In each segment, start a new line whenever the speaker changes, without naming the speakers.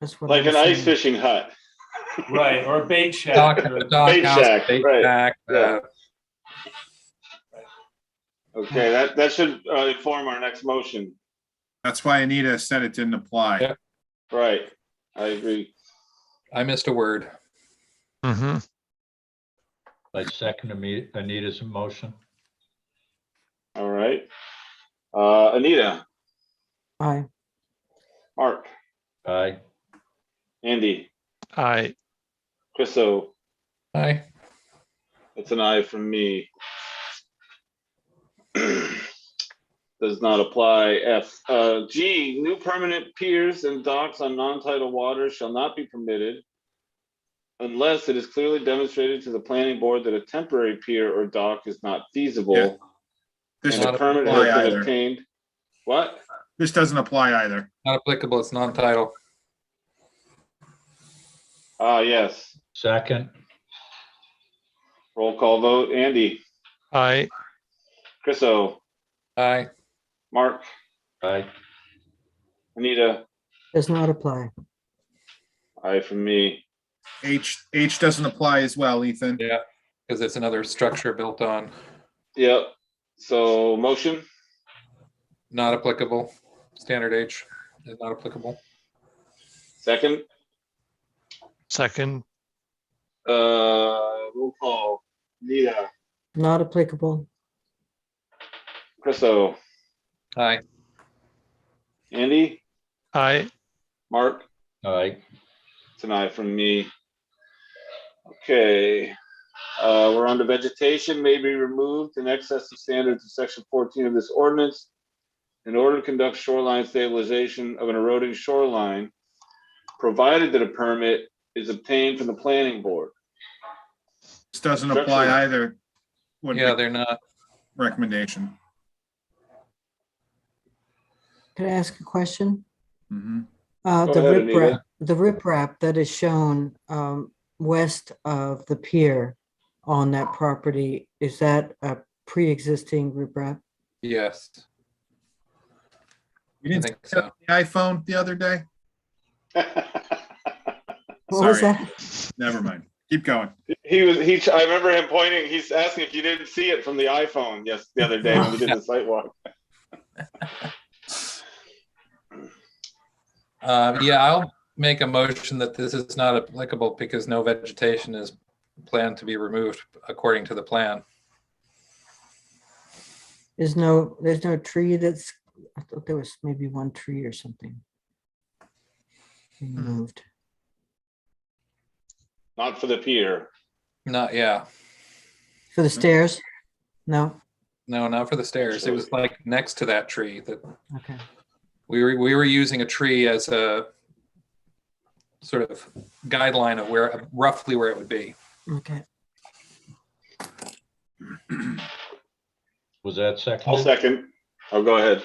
That's what.
like
I'm
an ice
saying.
fishing hut.
Right, or a bait shack.
Dock,
or-
dock
Bait
house,
shack,
bait
right,
shack,
yeah.
uh,
Okay, that, that should uh, inform our next motion.
That's why Anita said it didn't apply.
Yeah.
Right, I agree.
I missed a word.
Mm-hmm.
I second Ami- Anita's motion.
All right. Uh, Anita,
Aye,
Mark,
Aye.
Andy,
I,
Chriso,
Aye.
it's an aye from me. Does not apply. F, uh, G, new permanent piers and docks on non-tidal waters shall not be permitted unless it is clearly demonstrated to the planning board that a temporary pier or dock is not feasible
This,
and a
Not
permit
apply
has been
either.
obtained. What?
this doesn't apply either.
Not applicable, it's non-title.
Ah, yes.
Second,
Roll call vote. Andy,
I,
Chriso,
Aye.
Mark,
aye.
Anita,
does not apply.
aye from me.
H, H doesn't apply as well, Ethan.
Yeah, because it's another structure built on,
Yep. So motion,
not applicable. Standard H is not applicable.
second,
second,
uh, roll call. Anita,
Not applicable.
Chriso,
Aye.
Andy,
I,
Mark,
Aye.
it's an aye from me. Okay, uh, we're on to vegetation may be removed in excess of standards of section fourteen of this ordinance. In order to conduct shoreline stabilization of an eroding shoreline, provided that a permit is obtained from the planning board.
This doesn't apply either. Would
Yeah,
be
they're not.
recommendation.
Can I ask a question?
Mhm.
Uh,
Go
the
ahead, Anita.
riprap, the riprap that is shown, um, west of the pier on that property, is that a pre-existing riprap?
Yes,
You
I
didn't see
think
that
so.
on the iPhone the other day?
What was
Sorry.
that?
Never mind. Keep going.
He was he. I remember him pointing. He's asking if you didn't see it from the iPhone. Yes, the other day when we did the site walk.
Um, yeah, I'll make a motion that this is not applicable because no vegetation is planned to be removed according to the plan.
There's no, there's no tree that's, I thought there was maybe one tree or something. Removed.
Not for the pier.
Not, yeah,
For the stairs? No?
no, not for the stairs. It was like next to that tree that
Okay.
we were, we were using a tree as a sort of guideline of where, roughly where it would be.
Okay.
Was that second?
I'll second. Oh, go ahead.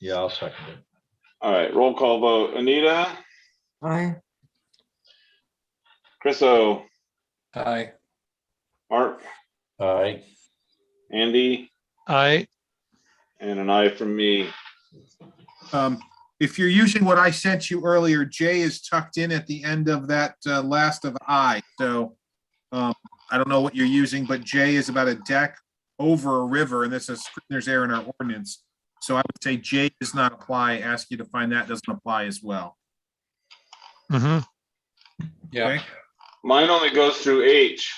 Yeah, I'll second it.
All right. Roll call vote. Anita,
Aye.
Chriso,
Aye.
Mark,
Aye.
Andy,
I,
and an I from me.
Um, if you're using what I sent you earlier, J is tucked in at the end of that uh, last of I, so um, I don't know what you're using, but J is about a deck over a river, and this is, there's air in our ordinance. So I would say J does not apply, ask you to find that doesn't apply as well.
mm-hmm.
Yeah.
Okay.
Mine only goes through H.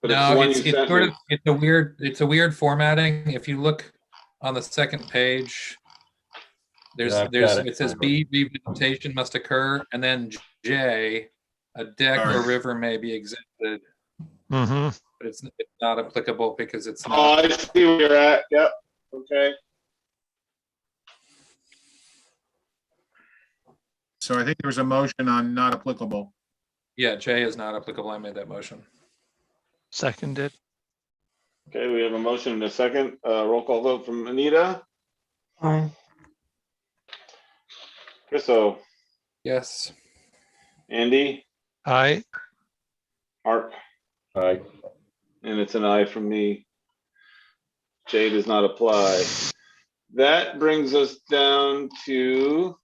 But it's the
No,
one
it's,
you
it's
sent
sort
me.
of, it's a weird, it's a weird formatting. If you look on the second page, there's,
Yeah, I've got
there's,
it.
it says B, revegetation must occur, and then J, a deck or
Alright.
river may be exempted, but
Mm-hmm.
it's it's not applicable because it's
Oh,
not,
I see where you're at. Yep. Okay.
So I think there was a motion on not applicable.
yeah, J is not applicable. I made that motion.
Seconded.
Okay. We have a motion and a second. Uh, roll call vote from Anita,
Aye.
Chriso,
Yes.
Andy,
I,
Mark.
Aye.
And it's an aye from me. J does not apply. That brings us down to